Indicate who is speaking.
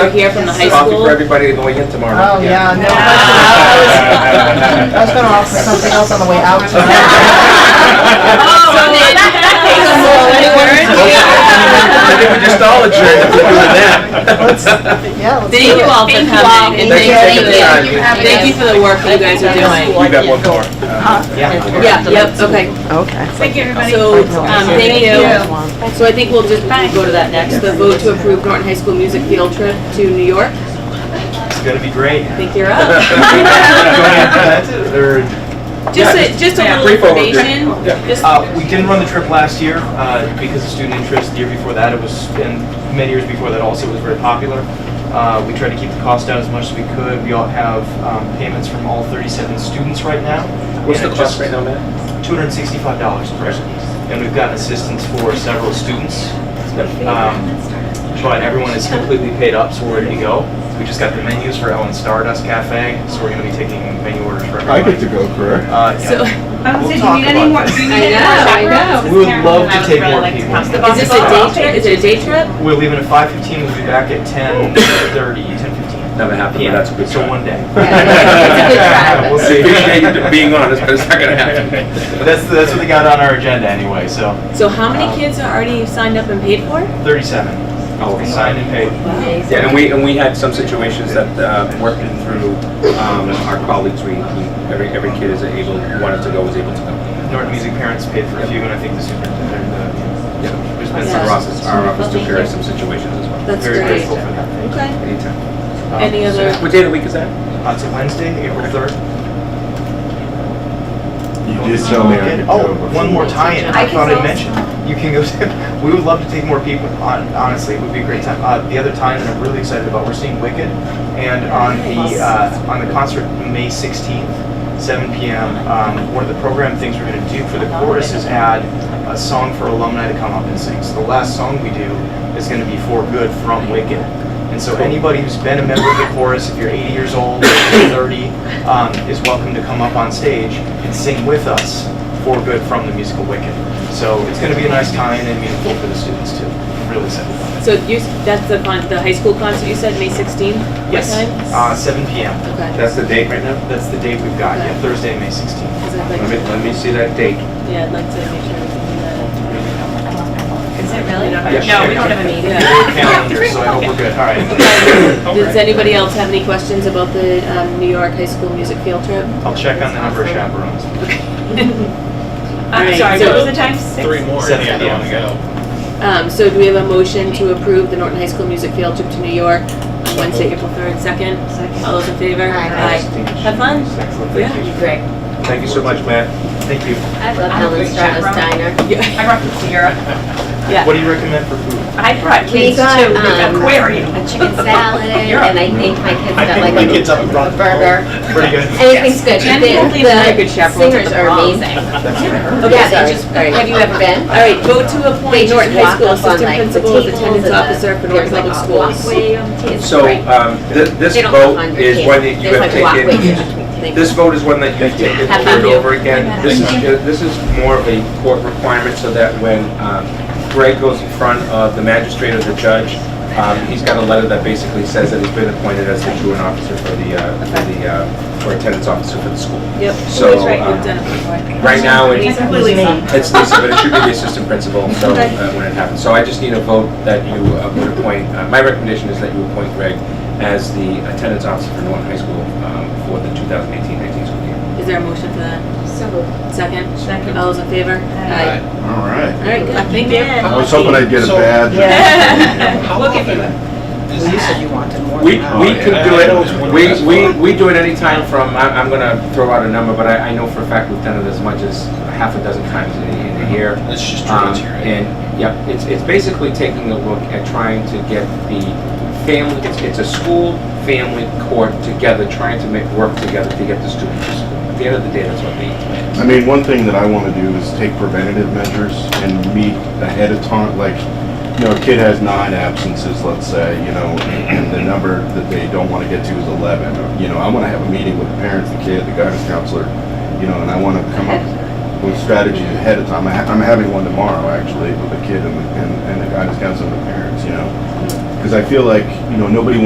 Speaker 1: We're here from the high
Speaker 2: Coffee
Speaker 1: school.
Speaker 2: for everybody on the way in tomorrow.
Speaker 3: Oh, yeah, no,
Speaker 1: Yeah.
Speaker 3: I was, I was gonna offer something else on the way out.
Speaker 1: So then, that takes us all
Speaker 2: I
Speaker 1: anywhere.
Speaker 2: think we just all adjourned if we're doing
Speaker 3: Let's-
Speaker 2: that.
Speaker 3: Yeah, let's
Speaker 1: Thank you all for coming. and
Speaker 2: Thank you.
Speaker 1: thank
Speaker 2: Thank you. Thank you.
Speaker 1: you. Thank you for the work that you guys are doing.
Speaker 2: We got one more. Uh,
Speaker 1: Yeah, yep, okay.
Speaker 3: Okay.
Speaker 4: Thank you, everybody.
Speaker 1: So, um, thank you.
Speaker 3: One.
Speaker 1: So I think we'll just go to that next, the vote to approve Norton High School music field trip to New York.
Speaker 5: It's gonna be great.
Speaker 1: I think you're
Speaker 2: Go
Speaker 1: up.
Speaker 2: ahead.
Speaker 5: That's it, or-
Speaker 1: Just a, just a little
Speaker 2: Brief overview.
Speaker 1: information.
Speaker 2: Yeah. Oh,
Speaker 1: Just
Speaker 5: Uh, we didn't run the trip last year uh, because of student interest. The year before that, it was, and many years before that also, it was very popular. Uh, we tried to keep the cost down as much as we could. We all have um, payments from all 37 students right now.
Speaker 2: What's the
Speaker 5: And it
Speaker 2: cost right
Speaker 5: just-
Speaker 2: now, Matt?
Speaker 5: $265 per person. And we've gotten assistance for several students. Um, But everyone is completely paid up, so we're ready to go. We just got the menus for Ellen Stardust Cafe, so we're gonna be taking menu orders for everyone.
Speaker 6: I get to go, correct?
Speaker 5: Uh, yeah.
Speaker 1: So,
Speaker 4: I was
Speaker 5: We'll
Speaker 4: saying, do you
Speaker 5: talk
Speaker 4: need any
Speaker 5: about
Speaker 4: more?
Speaker 5: that.
Speaker 4: do you
Speaker 1: I
Speaker 4: need any more
Speaker 1: know, I
Speaker 4: chaperones?
Speaker 1: know.
Speaker 5: We would love
Speaker 4: I
Speaker 5: to
Speaker 4: would
Speaker 5: take
Speaker 4: really
Speaker 5: more
Speaker 4: like to
Speaker 5: people.
Speaker 4: come. The
Speaker 1: is
Speaker 4: bus
Speaker 1: this
Speaker 4: all
Speaker 1: a day
Speaker 4: off.
Speaker 1: trip? Is it a day trip?
Speaker 5: We're leaving at five fifteen, we'll be back at ten thirty, ten fifteen.
Speaker 2: Never happened, but that's a good
Speaker 5: So
Speaker 2: try.
Speaker 5: one day.
Speaker 1: Yeah,
Speaker 5: We'll
Speaker 1: it's
Speaker 2: I
Speaker 5: see.
Speaker 2: appreciate you being honest, but it's not gonna happen.
Speaker 5: But That's, that's what they got on our agenda anyway, so
Speaker 1: so how
Speaker 2: Um,
Speaker 1: many kids are already signed up and paid for?
Speaker 5: thirty-seven.
Speaker 6: Oh,
Speaker 5: Signed and paid.
Speaker 2: Yeah, and we, and we had some situations that, uh, working through, um, our colleagues, we, we- every, every kid is able, who wanted to go, was able to go.
Speaker 5: Norton Music parents paid for a few, and I think the superintendent, uh,
Speaker 2: Yeah.
Speaker 5: there's been
Speaker 2: And
Speaker 5: some
Speaker 2: our
Speaker 5: process.
Speaker 2: office, our office took care of some situations as well.
Speaker 1: That's
Speaker 5: Very
Speaker 1: great.
Speaker 5: grateful for that.
Speaker 1: Okay.
Speaker 2: Anytime.
Speaker 5: Um,
Speaker 1: Any
Speaker 5: so-
Speaker 1: other-
Speaker 2: What day of the week is that?
Speaker 5: Uh, It's a Wednesday, April third.
Speaker 6: You did tell me I could go.
Speaker 5: Oh, one more tie-in, I
Speaker 4: I can
Speaker 5: thought I'd
Speaker 4: go.
Speaker 5: mention. You can go, to- we would love to take more people, hon- honestly, it would be a great time. Uh, The other tie-in that I'm really excited about, we're seeing Wicked, and on the, uh, on the concert, May 16th, 7 PM, um, one of the program things we're gonna do for the chorus is add a song for alumni to come up and sing. So the last song we do is gonna be For Good from Wicked. And so anybody who's been a member of the chorus, if you're 80 years old, 30, um, is welcome to come up on stage and sing with us for good from the musical Wicked. So it's going to be a nice time and meaningful for the students too. I'm really excited about
Speaker 1: So you, that's the con, the high school concert you said, May 16th?
Speaker 5: it. Yes, uh, 7 p.m.
Speaker 1: Okay.
Speaker 2: That's the date right now?
Speaker 5: That's the date we've got, yeah, Thursday, May 16th.
Speaker 1: 'Cause I'd like
Speaker 2: Let me,
Speaker 1: to-
Speaker 2: let me see that date.
Speaker 1: Yeah, I'd like to make sure we can do that.
Speaker 4: Is it really?
Speaker 2: Yes.
Speaker 4: No, we don't have a meeting.
Speaker 1: Yeah.
Speaker 5: Calendar, so I hope we're good. All right.
Speaker 1: Does anybody else have any questions about the um, New York high school music field trip?
Speaker 5: I'll check on the number of chaperones.
Speaker 4: I'm sorry, what was the time? Six?
Speaker 7: Three more,
Speaker 5: Seven,
Speaker 7: yeah,
Speaker 5: yeah.
Speaker 7: I want to go.
Speaker 1: Um, So do we have a motion to approve the Norton High School music field trip to New York on Wednesday, April 3rd, 2nd? All those in favor? Aye. Have fun.
Speaker 5: Excellent, thank you.
Speaker 8: Greg,
Speaker 2: Thank you so much, Matt.
Speaker 5: Thank you.
Speaker 8: I love Helen Strata's Diner.
Speaker 1: Yeah.
Speaker 4: I brought them to Europe.
Speaker 5: What do you recommend for food?
Speaker 4: I brought
Speaker 8: We
Speaker 4: kids to
Speaker 8: got
Speaker 4: the
Speaker 8: um,
Speaker 4: aquarium.
Speaker 8: a chicken salad, and I think my kids
Speaker 5: I
Speaker 8: got
Speaker 5: think my
Speaker 8: like
Speaker 5: kids up and
Speaker 8: a
Speaker 5: brought
Speaker 8: burger.
Speaker 5: pretty good.
Speaker 8: Anything's good.
Speaker 1: And hopefully they're very
Speaker 8: The
Speaker 1: good
Speaker 8: the
Speaker 1: chaperones at
Speaker 8: singers
Speaker 1: the
Speaker 8: are
Speaker 1: prom.
Speaker 8: amazing.
Speaker 5: That's what I heard.
Speaker 1: Okay,
Speaker 8: Yeah,
Speaker 1: sorry.
Speaker 8: they just,
Speaker 1: All right.
Speaker 8: have you ever been?
Speaker 1: All right, vote to
Speaker 8: They
Speaker 1: appoint
Speaker 8: just
Speaker 1: Norton High
Speaker 8: walk
Speaker 1: School
Speaker 8: up on,
Speaker 1: Assistant
Speaker 8: like, the
Speaker 1: Principal as
Speaker 8: tables
Speaker 1: attendance
Speaker 8: and the-
Speaker 1: officer for
Speaker 8: there's,
Speaker 1: Norton Public
Speaker 8: like, a
Speaker 1: Schools.
Speaker 8: walkway on tables.
Speaker 2: So,
Speaker 8: Right.
Speaker 2: um, th- this
Speaker 8: They don't have
Speaker 2: vote
Speaker 8: hundred
Speaker 2: is
Speaker 8: kids.
Speaker 2: one that you have
Speaker 8: There's, like, walkways
Speaker 2: taken,
Speaker 8: between things.
Speaker 2: this vote is one that you've taken
Speaker 8: Have
Speaker 2: over
Speaker 8: fun.
Speaker 2: and over again. This is, this is more of a court requirement so that when um, Greg goes in front of the magistrate or the judge, um, he's got a letter that basically says that he's been appointed as the truant officer for the, uh, for the, uh, or attendance officer for the school.
Speaker 1: Yep.
Speaker 2: So,
Speaker 1: Who's right?
Speaker 2: um,
Speaker 1: We've done it before.
Speaker 2: Right now, it-
Speaker 4: It's completely fine.
Speaker 2: it's Lisa, but it should be the assistant principal, so, uh, when it happens. So I just need a vote that you uh, would appoint, uh, my recommendation is that you appoint Greg as the attendance officer for Norton High School um, for the 2018-19 school year.
Speaker 1: Is there a motion for that? Second? Second. All those in favor? Aye.
Speaker 6: All right.
Speaker 1: All right, good.
Speaker 4: Thank you.
Speaker 6: I was hoping I'd get a
Speaker 7: So-
Speaker 6: badge.
Speaker 7: How
Speaker 4: Look at
Speaker 7: often
Speaker 4: you.
Speaker 7: is this?
Speaker 2: We, we
Speaker 6: yeah.
Speaker 2: can do
Speaker 7: I know it's one
Speaker 2: it,
Speaker 7: last
Speaker 2: we, we,
Speaker 7: one.
Speaker 2: we do it anytime from, I- I'm gonna throw out a number, but I, I know for a fact we've done it as much as half a dozen times in a, in a year.
Speaker 7: It's just
Speaker 2: Um,
Speaker 7: tributary.
Speaker 2: And, yeah, it's, it's basically taking a look at trying to get the family, it's, it's a school, family, court together, trying to make, work together to get the students to school. At the end of the day, that's what they need.
Speaker 6: I mean, one thing that I want to do is take preventative measures and meet ahead of time, like, you know, a kid has nine absences, let's say, you know, and the number that they don't want to get to is eleven. You know, I want to have a meeting with the parents, the kid, the guidance counselor, you know, and I want to come up with strategies ahead of time. I ha- I'm having one tomorrow, actually, with the kid and, the- and and the guidance counselor and the parents, you know? Because I feel like, you know, nobody